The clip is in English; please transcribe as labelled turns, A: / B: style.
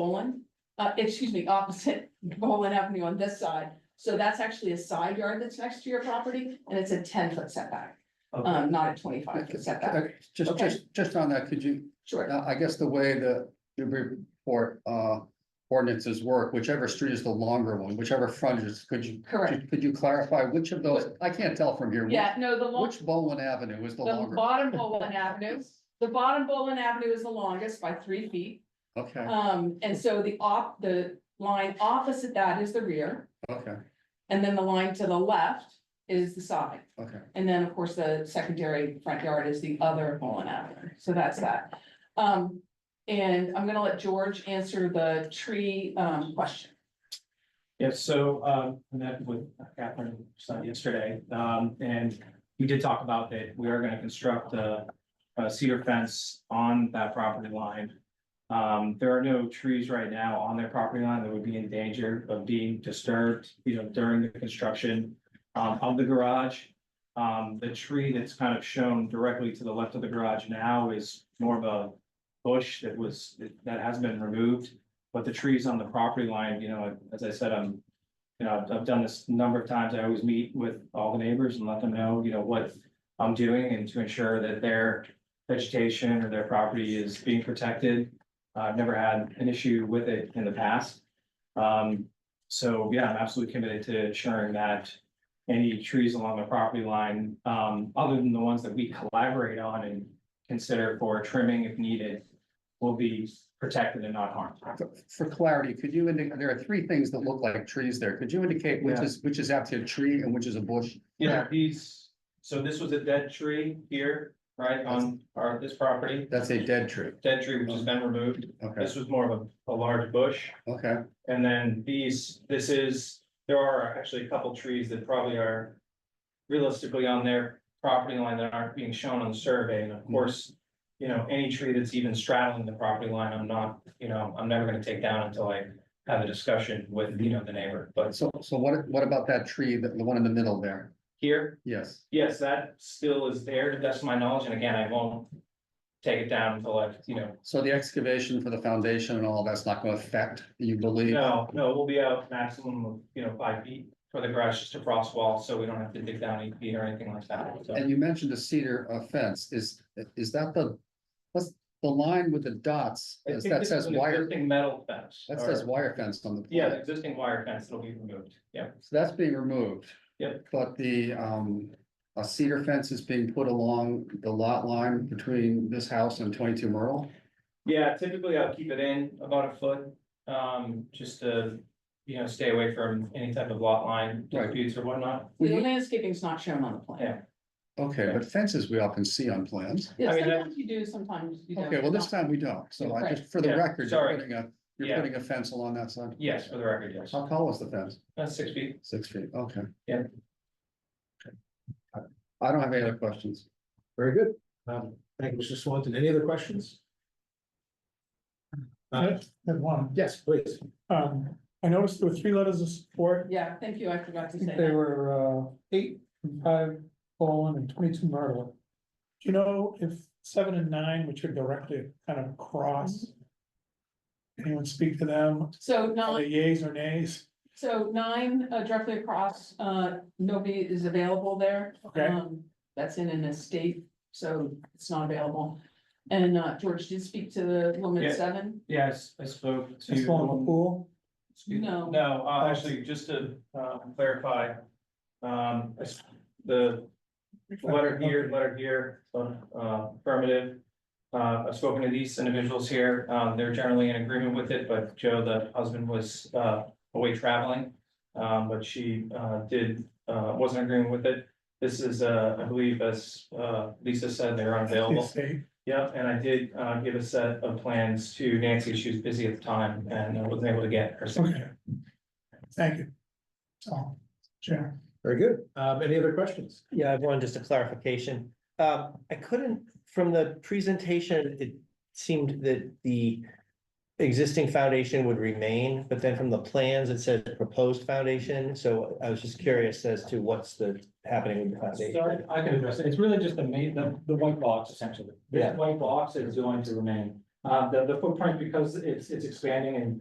A: Bolin, uh, excuse me, opposite Bolin Avenue on this side. So that's actually a side yard that's next to your property and it's a ten foot setback,
B: Okay.
A: um, not a twenty five foot setback.
C: Okay, Just,
A: Okay.
C: just, just on that, could you,
A: Sure.
C: now, I guess the way the Newbury Port, uh, ordinances work, whichever street is the longer one, whichever frontage, is- could you,
A: Correct.
C: could you clarify which of those, I can't tell from here. which-
A: Yeah, no, the long,
C: Which Bolin Avenue is the
A: the
C: longer?
A: bottom Bolin Avenue, the bottom Bolin Avenue is the longest by three feet.
C: Okay,
A: Um, and so the op, the line opposite that is the rear.
C: okay,
A: And then the line to the left is the side.
C: okay.
A: And then, of course, the secondary front yard is the other Mullen Avenue, so that's that. Um, and I'm gonna let George answer the tree, um, question.
B: Yeah, so, um, I met with Catherine Stein yesterday, um, and we did talk about that, we are gonna construct a, a cedar fence on that property line. Um, there are no trees right now on their property line that would be in danger of being disturbed, you know, during the construction, um, of the garage. Um, the tree that's kind of shown directly to the left of the garage now is more of a bush that was, that has been removed. But the trees on the property line, you know, as I said, I'm, you know, I've- I've done this a number of times. I always meet with all the neighbors and let them know, you know, what I'm doing and to ensure that their vegetation or their property is being protected. Uh, I've never had an issue with it in the past. Um, so yeah, I'm absolutely committed to ensuring that any trees along the property line, um, other than the ones that we collaborate on and consider for trimming if needed, will be protected and not harmed.
C: For- For clarity, could you indicate, there are three things that look like trees there. Could you indicate which
B: Yeah.
C: is, which is actually a tree and which is a bush?
B: Yeah, these, so this was a dead tree here, right, on our, this property,
C: That's a dead tree.
B: dead tree which has been removed.
C: Okay,
B: This was more of a, a large bush.
C: okay,
B: And then these, this is, there are actually a couple trees that probably are realistically on their property line that aren't being shown on the survey, and of course, you know, any tree that's even straddling the property line, I'm not, you know, I'm never gonna take down until I have a discussion with, you know, the neighbor, but
C: so, so what, what about that tree, the, the one in the middle there?
B: here,
C: Yes,
B: Yes, that still is there, that's my knowledge, and again, I won't take it down until I, you know,
C: so the excavation for the foundation and all that's not gonna affect, you believe?
B: no, no, we'll be out maximum of, you know, five feet for the garage, just a frost wall, so we don't have to dig down eight feet or anything like that, so.
C: And you mentioned a cedar uh, fence, is, is that the, what's the line with the dots,
B: I
C: Is
B: think
C: that
B: this
C: says
B: is an
C: wire,
B: Existing metal fence.
C: that
B: or-
C: says wire fence on the.
B: Yeah,
C: plan.
B: the existing wire fence that'll be removed, yeah,
C: So that's being removed.
B: Yep.
C: But the, um, a cedar fence is being put along the lot line between this house and twenty-two Myrtle?
B: yeah, typically I'll keep it in about a foot, um, just to, you know, stay away from any type of lot line
C: Right.
B: disputes or whatnot.
A: The landscaping's not shown on the
B: Mm-hmm. Yeah.
A: plan.
C: Okay, but fences we often see on plans.
A: Yeah,
B: I mean, that-
A: sometimes you do, sometimes you don't.
C: Okay, well, this time we don't, so I just, for the
B: Right. Yeah,
C: record, you're
B: sorry.
C: putting a, you're
B: Yeah.
C: putting a fence along that side?
B: Yes, for the record, yes,
C: How tall is the fence?
B: that's six feet.
C: Six feet, okay.
B: Yeah.
C: Okay. I I don't have any other questions.
D: Very good. Um, thank you, Mr. Swanton. Any other questions? Uh,
E: Have one.
D: yes, please.
E: Um, I noticed there were three letters of support.
A: Yeah, thank you, I forgot
E: I
A: to say
E: think they
A: that.
E: were, uh, eight, and five, Bolin, and twenty-two Myrtle. Do you know if seven and nine, which are directly kind of across? Anyone speak to them?
A: So
E: Are
A: nine,
E: they yays or nays?
A: so nine uh, directly across, uh, nobody is available there.
E: Okay.
A: Um, That's in an estate, so it's not available. And, uh, George did speak to the woman
B: Yeah.
A: at seven.
B: Yes, I spoke to.
E: Just one in the pool?
B: Excuse-
A: No.
B: No, uh, actually, just to, uh, clarify, um, I s- the letter here, letter here, uh, affirmative. Uh, I've spoken to these individuals here, um, they're generally in agreement with it, but Joe, the husband, was, uh, away traveling. Um, but she, uh, did, uh, wasn't agreeing with it. This is, uh, I believe, as, uh, Lisa said, they're unavailable.
E: Estate.
B: Yep, and I did uh give a set of plans to Nancy, she was busy at the time and I wasn't able to get her.
E: Okay. Thank you. So, Sharon.
D: Very good. Um, any other questions?
F: Yeah, I have one, just a clarification. Um, I couldn't, from the presentation, it seemed that the existing foundation would remain, but then from the plans, it said proposed foundation. So I was just curious as to what's the happening with the foundation.
B: I can address it. It's really just the main, the the white box essentially.
F: Yeah.
B: white box is going to remain. Um, Uh, the, the footprint, because it's, it's expanding and